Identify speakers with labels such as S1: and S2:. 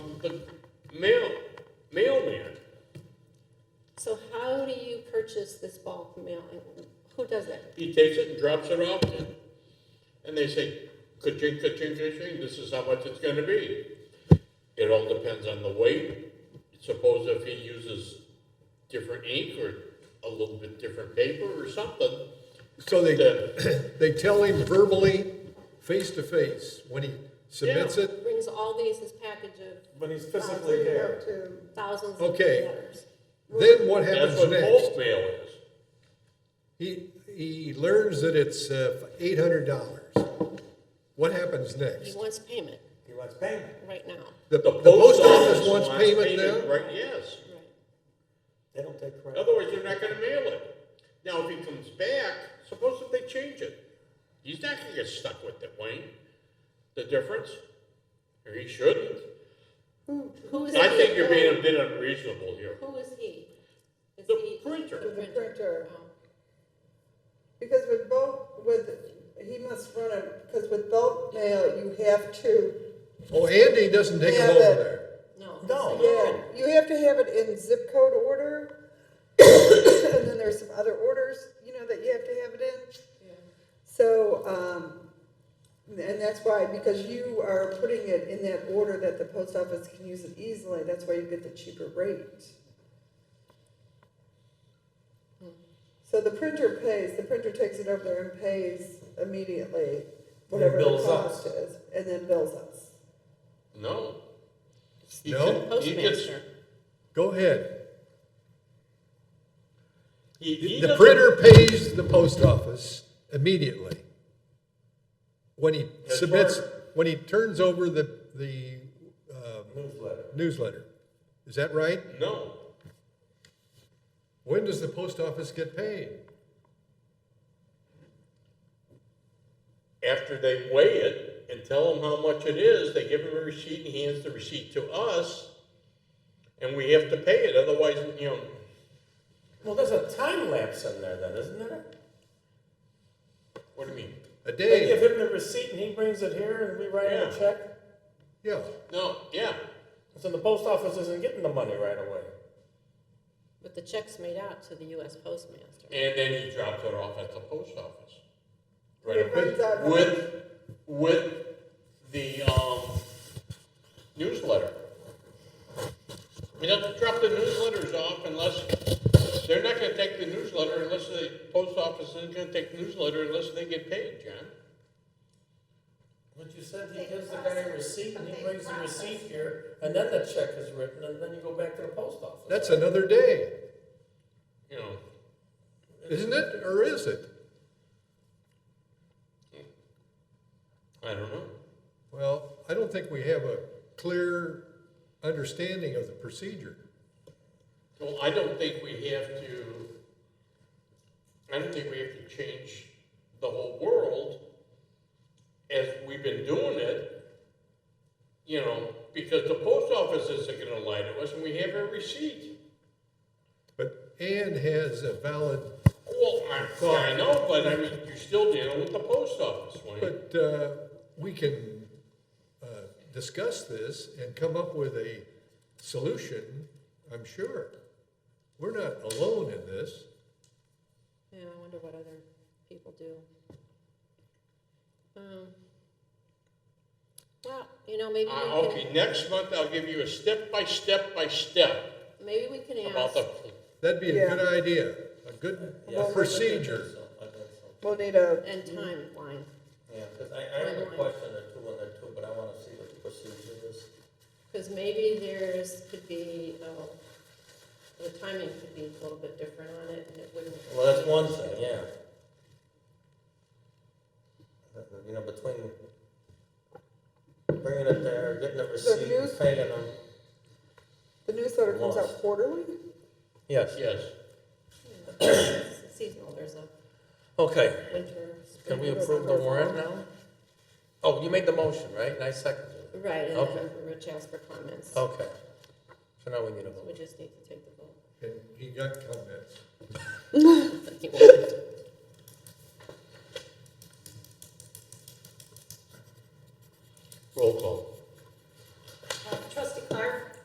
S1: the mail, mailman.
S2: So how do you purchase this bulk mail? Who does that?
S1: He takes it and drops it off in. And they say, ka-ching, ka-ching, ka-ching, this is how much it's gonna be. It all depends on the weight. Suppose if he uses different ink or a little bit different paper or something,
S3: So they,
S1: then
S3: they tell him verbally, face to face, when he submits
S1: Yeah.
S3: it?
S2: Brings all these, this package of
S4: When he's physically there.
S2: thousands of
S3: Okay.
S2: letters.
S3: Then what
S1: that's
S3: happens
S1: what
S3: next?
S1: bulk mail is.
S3: He, he learns that it's uh, eight hundred dollars. What happens
S2: He
S3: next?
S2: wants payment
S4: He wants payment.
S2: right now.
S3: The, the post office wants payment
S1: payment,
S3: now?
S1: Right, yes.
S2: Right.
S4: They don't take credit.
S1: Otherwise, they're not gonna mail it. Now, if he comes back, suppose that they change it. He's not gonna get stuck with it, Wayne. The difference? Or he shouldn't.
S2: Who is he?
S1: I think you're being a bit unreasonable here.
S2: Who is he? Is
S1: The
S2: he-
S5: To
S1: printer,
S5: the printer,
S2: Oh.
S5: because with bulk, with, he must run it, because with bulk mail, you have to,
S3: Oh, Andy doesn't take him
S5: Yeah,
S3: over
S5: but-
S3: there.
S2: No.
S4: No.
S5: yeah, you have to have it in zip code order. And then there's some other orders, you know, that you have to have it in. So, um, and that's why, because you are putting it in that order that the post office can use it easily, that's why you get the cheaper rate.
S4: Hmm.
S5: So the printer pays, the printer takes it over there and pays immediately, whatever the
S4: bills us.
S5: cost is, and then bills us.
S1: no. He
S3: No?
S1: can- he gets-
S2: Postmaster.
S3: Go ahead.
S1: He, he
S3: The
S1: doesn't-
S3: printer pays the post office immediately. When he
S4: That's
S3: submits,
S4: right.
S3: when he turns over the, the uh,
S4: Newsletter.
S3: newsletter. Is that right?
S1: No,
S3: When does the post office get paid?
S1: after they weigh it and tell him how much it is, they give him a receipt and he hands the receipt to us. And we have to pay it, otherwise, you know,
S4: Well, there's a time lapse in there then, isn't there?
S1: what do you mean?
S3: A
S4: They give
S3: day?
S4: him the receipt and he brings it here and we write him
S1: Yeah.
S4: a check.
S3: Yeah.
S1: No, yeah,
S4: So the post office isn't getting the money right away.
S2: But the check's made out to the US Postmaster.
S1: And then he dropped it off at the post office.
S5: It
S1: Right,
S5: runs out-
S1: with, with the, um, newsletter. You don't drop the newsletters off unless, they're not gonna take the newsletter unless the post office isn't gonna take the newsletter unless they get paid, John.
S4: But you said he gives the guy a receipt and he brings the receipt here and then the check is written and then you go back to the post office.
S3: That's another day,
S1: You know,
S3: isn't it? Or is it?
S1: I don't know.
S3: Well, I don't think we have a clear understanding of the procedure.
S1: Well, I don't think we have to, I don't think we have to change the whole world as we've been doing it, you know, because the post office isn't gonna lie to us and we have a receipt.
S3: But Ann has a valid,
S1: Well, I, yeah, I know, but I mean, you're still dealing with the post office, Wayne.
S3: but uh, we can uh, discuss this and come up with a solution, I'm sure. We're not alone in this.
S2: Yeah, I wonder what other people do. Um, Well, you know, maybe we
S1: I-
S2: can,
S1: Okay, next month I'll give you a step by step by step
S2: maybe we can
S1: about
S2: ask,
S1: the,
S3: That'd be a
S5: Yeah.
S3: good idea, a good
S4: Yeah, I think
S3: procedure.
S4: so. I think so.
S5: We'll need a,
S2: and timeline.
S4: Yeah, because I, I have a question or two on there too, but I want to see what the procedure is.
S2: Because maybe there's, could be, uh, the timing could be a little bit different on it, and it wouldn't.
S4: Well, that's one thing, yeah. But, You know, between bringing it there, getting the receipt, and
S5: news-
S4: paying them.
S5: the newsletter comes out
S4: Lost.
S5: quarterly?
S4: Yes.
S1: yes.
S2: It's Seasonal, there's a
S4: Okay,
S2: winter.
S4: can we
S2: spring,
S4: approve the
S2: summer.
S4: warrant now? Oh, you made the motion, right? And I seconded it.
S2: Right, and
S4: Okay. Oh.
S2: then Rich asked for comments. So
S4: Okay. So now we need a vote.
S2: we just need to take the vote.
S3: And he got comments.
S2: He won't.